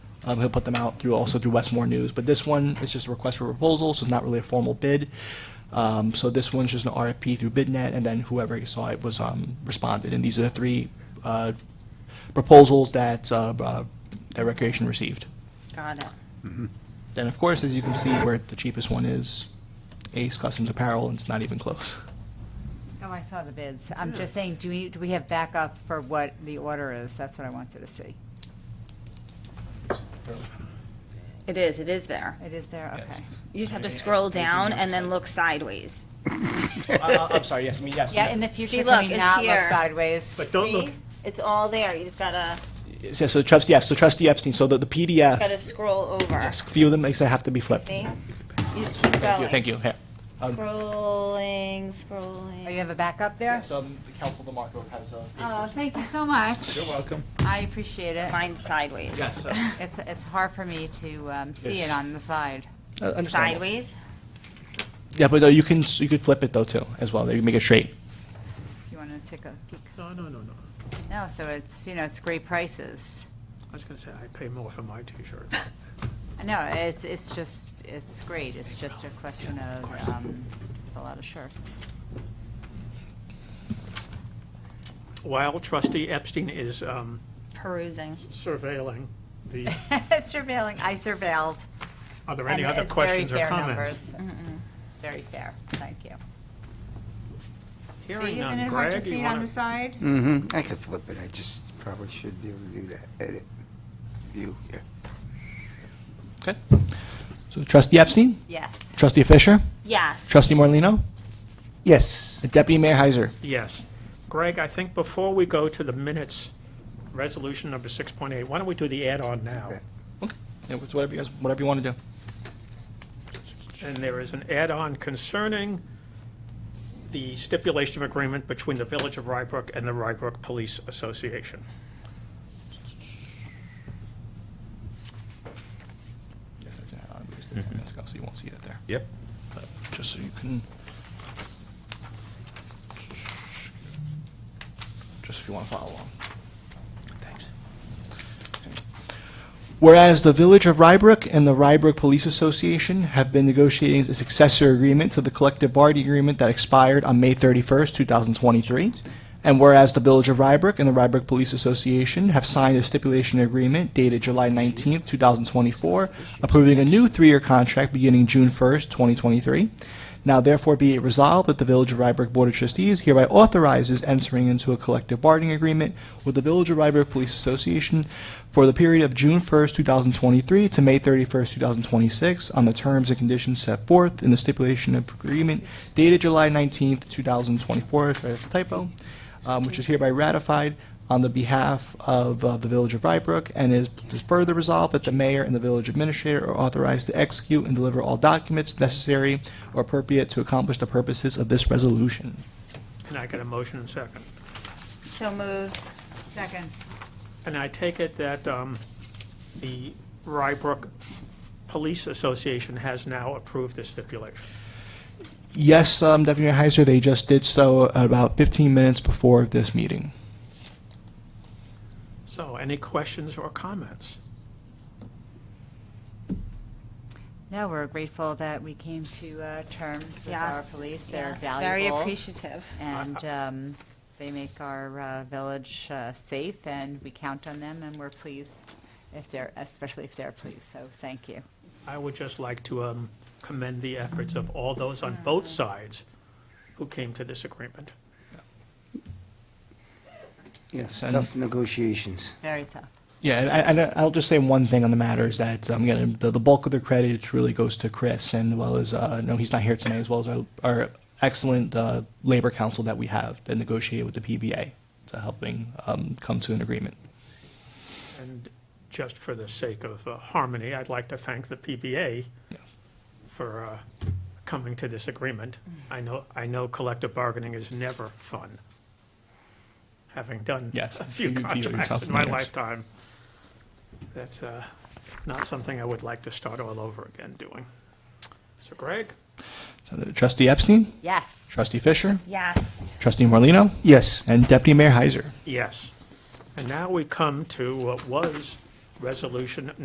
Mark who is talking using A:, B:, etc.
A: Um, he'll put them out through also through Westmore News. But this one is just a request for proposal, so it's not really a formal bid. Um, so this one's just an RFP through BidNet, and then whoever saw it was um, responded. And these are the three uh, proposals that uh, uh, that Recreation received.
B: Got it.
A: Then, of course, as you can see, where the cheapest one is, Ace Customs Apparel, and it's not even close.
B: Oh, I saw the bids. I'm just saying, do we, do we have backup for what the order is? That's what I wanted to see.
C: It is, it is there.
B: It is there?
A: Yes.
B: Okay.
C: You just have to scroll down and then look sideways.
A: I, Uh, I'm sorry. Yes, I mean yes.
B: Yeah, in the future,
C: See,
B: can we
C: look, it's
B: not look
C: here.
B: sideways?
D: But don't look,
C: See? It's all there, you just gotta,
A: So, so trustee, yes. So trustee Epstein. So the, the PDF.
C: gotta scroll over.
A: yes, a few of them makes that have to be flipped.
C: See? You just keep
A: Thank you.
C: going.
A: Thank you. Um, Here.
C: Scrolling,
B: Oh,
C: scrolling.
B: you have a backup there?
A: So the council DeMarco has. Uh,
B: Oh, thank you so much. You're welcome. I appreciate it.
C: Mine's sideways.
A: yes. Uh,
B: It's, it's hard for me to um, see
A: Yes.
B: it on the side.
A: Uh, understandable.
C: Sideways?
A: Yeah, but uh, you can you could flip it though too as well. You can make it straight.
B: If you want to take a peek.
D: no, no, no, no.
B: No, so it's, you know, it's great prices.
D: I was gonna say, I pay more for my t-shirt.
B: No, it's, it's just, it's great. It's just a question of, um, it's a lot of shirts.
D: While trustee Epstein is um,
C: Perusing.
D: surveilling the,
B: Surveilling, I surveilled.
D: are there
B: and
D: any other
B: it's very
D: questions or
B: fair
D: comments?
B: numbers. Very fair, thank you.
D: Hearing none, Greg, you want to?
B: side?
E: Mm-hmm, I could flip it, I just probably should be able to do that, edit, view, yeah.
A: Okay. So trustee Epstein,
B: Yes.
A: trustee Fisher,
C: Yes.
A: trustee Morlino,
E: Yes,
A: and deputy mayor Heiser.
D: Yes. Greg, I think before we go to the minutes, resolution number 6.8, why don't we do the add-on now?
A: Yeah, it's whatever you guys, whatever you want to do.
D: And there is an add-on concerning the stipulation of agreement between the Village of Rybrook and the Rybrook Police Association.
A: Yes, that's an add-on. We just did 10 minutes ago, so you won't see that there.
F: Yep.
A: But Just so you can. Just if you want to follow along. Thanks. Whereas the Village of Rybrook and the Rybrook Police Association have been negotiating a successor agreement to the collective bargaining agreement that expired on May 31st, 2023. And whereas the Village of Rybrook and the Rybrook Police Association have signed a stipulation agreement dated July 19th, 2024, approving a new three-year contract beginning June 1st, 2023. Now therefore be it resolved that the Village of Rybrook Board of Trustees hereby authorizes entering into a collective bargaining agreement with the Village of Rybrook Police Association for the period of June 1st, 2023 to May 31st, 2026 on the terms and conditions set forth in the stipulation of agreement dated July 19th, 2024, sorry, that's a typo, um, which is hereby ratified on the behalf of uh, the Village of Rybrook, and is is further resolved that the mayor and the village administrator are authorized to execute and deliver all documents necessary or appropriate to accomplish the purposes of this resolution.
D: And I get a motion and second.
C: So moved.
B: Second.
D: And I take it that um, the Rybrook Police Association has now approved the stipulation.
A: Yes, um, Deputy Mayor Heiser, they just did so about 15 minutes before this meeting.
D: So any questions or comments?
B: No, we're grateful that we came to uh, terms with our
C: Yes.
B: police. They're
C: yes. Very
B: valuable.
C: appreciative.
B: And um, they make our uh, village uh, safe, and we count on them, and we're pleased if they're, especially if they're pleased, so thank you.
D: I would just like to um, commend the efforts of all those on both sides who came to this agreement.
E: yes,
A: And-
E: tough negotiations.
B: Very tough.
A: Yeah, and I, and I- I'll just say one thing on the matter is that I'm gonna, the, the bulk of the credit really goes to Chris and well as, uh, no, he's not here tonight, as well as our, our excellent, uh, labor council that we have that negotiated with the PBA to helping, um, come to an agreement.
D: And just for the sake of uh, harmony, I'd like to thank the PBA for uh, coming to this agreement. I know, I know collective bargaining is never fun, having done
A: Yes.
D: a few
A: You feel
D: contracts
A: yourself
D: in my
A: in the ass.
D: lifetime. That's uh, not something I would like to start all over again doing. So Greg,
A: So the Trustee Epstein,
B: Yes.
A: trustee Fisher,
C: Yes.
A: trustee Morlino,
E: Yes,
A: and deputy mayor Heiser.
D: yes. And now we come to what was resolution